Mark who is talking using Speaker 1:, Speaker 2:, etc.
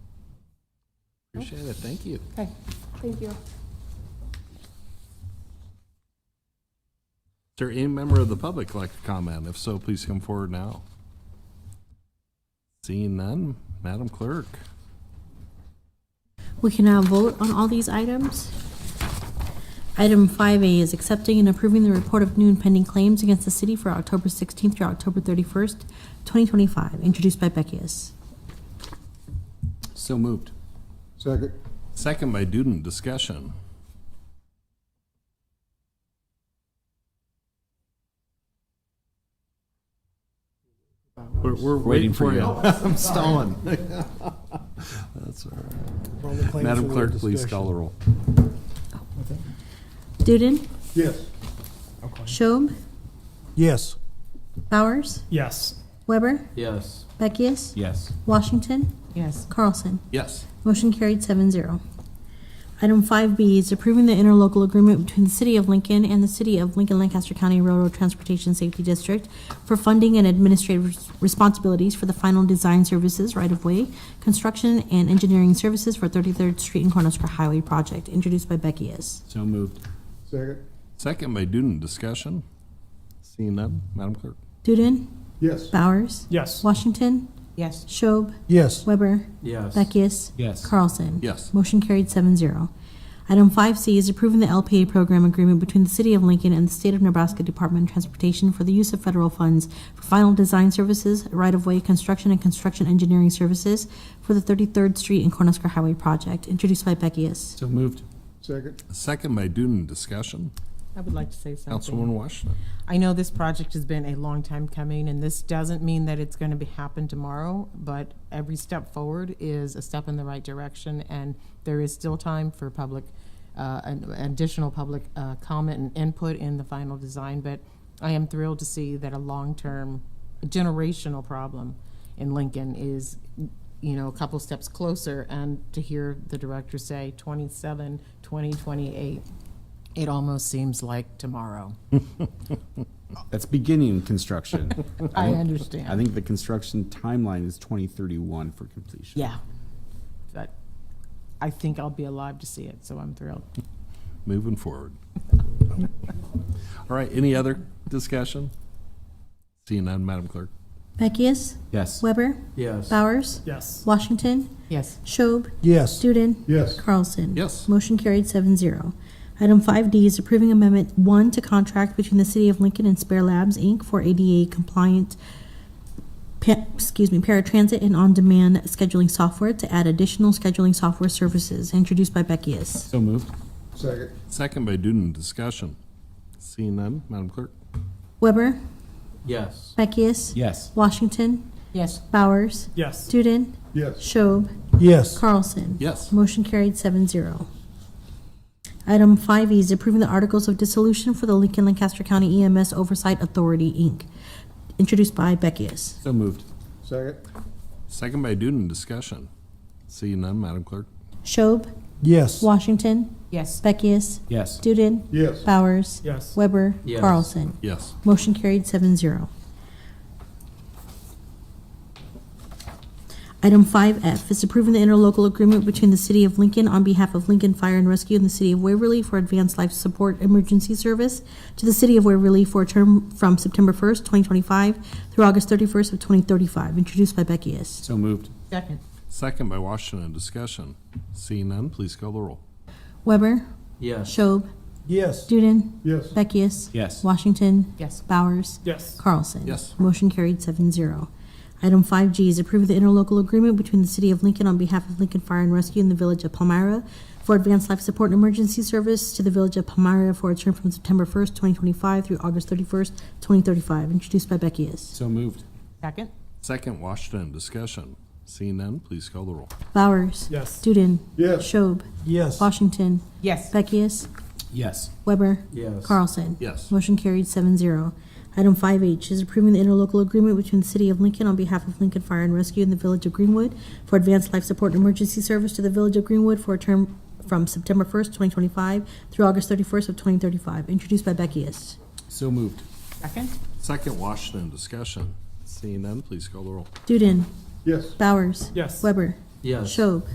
Speaker 1: Appreciate it, thank you.
Speaker 2: Okay, thank you.
Speaker 1: Is there any member of the public like to comment? If so, please come forward now. Seeing none, Madam Clerk.
Speaker 3: We can now vote on all these items. Item 5A is accepting and approving the report of new and pending claims against the city for October 16th through October 31st, 2025, introduced by Beckius.
Speaker 4: So moved.
Speaker 5: Second.
Speaker 1: Second by Duden, discussion. We're, we're waiting for you. I'm stalling. That's all right. Madam Clerk, please call the roll.
Speaker 3: Duden,
Speaker 5: Yes.
Speaker 3: Schob,
Speaker 5: Yes.
Speaker 3: Bowers,
Speaker 6: Yes.
Speaker 3: Weber,
Speaker 4: Yes.
Speaker 3: Beckius,
Speaker 4: Yes.
Speaker 3: Washington,
Speaker 2: Yes.
Speaker 3: Carlson.
Speaker 1: Yes.
Speaker 3: Motion carried seven zero. Item five B is approving the interlocal agreement between the City of Lincoln and the City of Lincoln Lancaster County Railroad Transportation Safety District for funding and administrative res- responsibilities for the final design services right-of-way, construction, and engineering services for Thirty-third Street and Cornhusker Highway Project, introduced by Beckius.
Speaker 4: So moved.
Speaker 5: Second.
Speaker 1: Second by Duden, discussion. Seeing none, Madam Clerk.
Speaker 3: Duden,
Speaker 5: Yes.
Speaker 3: Bowers,
Speaker 6: Yes.
Speaker 3: Washington,
Speaker 2: Yes.
Speaker 3: Schob,
Speaker 5: Yes.
Speaker 3: Weber,
Speaker 4: Yes.
Speaker 3: Beckius.
Speaker 4: Yes.
Speaker 3: Carlson.
Speaker 1: Yes.
Speaker 3: Motion carried seven zero. Item five C is approving the LPA program agreement between the City of Lincoln and the State of Nebraska Department of Transportation for the use of federal funds for final design services, right-of-way construction, and construction engineering services for the Thirty-third Street and Cornhusker Highway project, introduced by Beckius.
Speaker 4: So moved.
Speaker 5: Second.
Speaker 1: Second by Duden, discussion.
Speaker 2: I would like to say something.
Speaker 1: Councilwoman Washington.
Speaker 2: I know this project has been a long time coming, and this doesn't mean that it's going to be happen tomorrow, but every step forward is a step in the right direction, and there is still time for public, uh, an- additional public uh, comment and input in the final design, but I am thrilled to see that a long-term generational problem in Lincoln is, you know, a couple steps closer, and to hear the director say 27, 20, 28, it almost seems like tomorrow.
Speaker 7: That's beginning construction.
Speaker 2: I
Speaker 7: Right?
Speaker 2: understand.
Speaker 7: I think the construction timeline is 2031 for completion.
Speaker 2: Yeah. But I think I'll be alive to see it, so I'm thrilled.
Speaker 1: moving forward. All right, any other discussion? Seeing none, Madam Clerk.
Speaker 3: Beckius,
Speaker 7: Yes.
Speaker 3: Weber,
Speaker 4: Yes.
Speaker 3: Bowers,
Speaker 6: Yes.
Speaker 3: Washington,
Speaker 2: Yes.
Speaker 3: Schob,
Speaker 5: Yes.
Speaker 3: Duden,
Speaker 5: Yes.
Speaker 3: Carlson.
Speaker 1: Yes.
Speaker 3: Motion carried seven zero. Item five D is approving amendment one to contract between the City of Lincoln and Spare Labs, Inc. for ADA compliant, pa- excuse me, paratransit and on-demand scheduling software to add additional scheduling software services, introduced by Beckius.
Speaker 7: So moved.
Speaker 5: Second.
Speaker 1: Second by Duden, discussion. Seeing none, Madam Clerk.
Speaker 3: Weber,
Speaker 4: Yes.
Speaker 3: Beckius,
Speaker 7: Yes.
Speaker 3: Washington,
Speaker 2: Yes.
Speaker 3: Bowers,
Speaker 6: Yes.
Speaker 3: Duden,
Speaker 5: Yes.
Speaker 3: Schob,
Speaker 5: Yes.
Speaker 3: Carlson.
Speaker 1: Yes.
Speaker 3: Motion carried seven zero. Item five E is approving the articles of dissolution for the Lincoln Lancaster County EMS Oversight Authority, Inc., introduced by Beckius.
Speaker 7: So moved.
Speaker 5: Second.
Speaker 1: Second by Duden, discussion. Seeing none, Madam Clerk.
Speaker 3: Schob,
Speaker 5: Yes.
Speaker 3: Washington,
Speaker 2: Yes.
Speaker 3: Beckius,
Speaker 7: Yes.
Speaker 3: Duden,
Speaker 5: Yes.
Speaker 3: Bowers,
Speaker 6: Yes.
Speaker 3: Weber,
Speaker 4: Yes.
Speaker 3: Carlson.
Speaker 1: Yes.
Speaker 3: Motion carried seven zero. Item five F is approving the interlocal agreement between the City of Lincoln on behalf of Lincoln Fire and Rescue and the City of Waverly for Advanced Life Support Emergency Service to the City of Waverly for a term from September first, twenty twenty-five through August thirty-first of twenty thirty-five, introduced by Beckius.
Speaker 7: So moved.
Speaker 2: Second.
Speaker 1: Second by Washington, discussion. Seeing none, please call the roll.
Speaker 3: Weber,
Speaker 4: Yes.
Speaker 3: Schob,
Speaker 5: Yes.
Speaker 3: Duden,
Speaker 5: Yes.
Speaker 3: Beckius.
Speaker 7: Yes.
Speaker 3: Washington,
Speaker 2: Yes.
Speaker 3: Bowers,
Speaker 6: Yes.
Speaker 3: Carlson.
Speaker 1: Yes.
Speaker 3: Motion carried seven zero. Item five G is approve the interlocal agreement between the City of Lincoln on behalf of Lincoln Fire and Rescue and the Village of Palmyra for advanced life support and emergency service to the Village of Palmyra for a term from September first, twenty twenty-five through August thirty-first, twenty thirty-five, introduced by Beckius.
Speaker 7: So moved.
Speaker 2: Second.
Speaker 1: Second, Washington, discussion. Seeing none, please call the roll.
Speaker 3: Bowers.
Speaker 6: Yes.
Speaker 3: Duden.
Speaker 5: Yes.
Speaker 3: Schob.
Speaker 5: Yes.
Speaker 3: Washington.
Speaker 2: Yes.
Speaker 3: Beckius.
Speaker 7: Yes.
Speaker 3: Weber.
Speaker 4: Yes.
Speaker 3: Carlson.
Speaker 1: Yes.
Speaker 3: Motion carried seven zero. Item five H is approving the interlocal agreement between the City of Lincoln on behalf of Lincoln Fire and Rescue and the Village of Greenwood for advanced life support and emergency service to the Village of Greenwood for a term from September first, twenty twenty-five through August thirty-first of twenty thirty-five, introduced by Beckius.
Speaker 7: So moved.
Speaker 2: Second.
Speaker 1: Second, Washington, discussion. Seeing none, please call the roll.
Speaker 3: Duden.
Speaker 5: Yes.
Speaker 3: Bowers.
Speaker 6: Yes.
Speaker 3: Weber.
Speaker 4: Yes.
Speaker 3: Schob.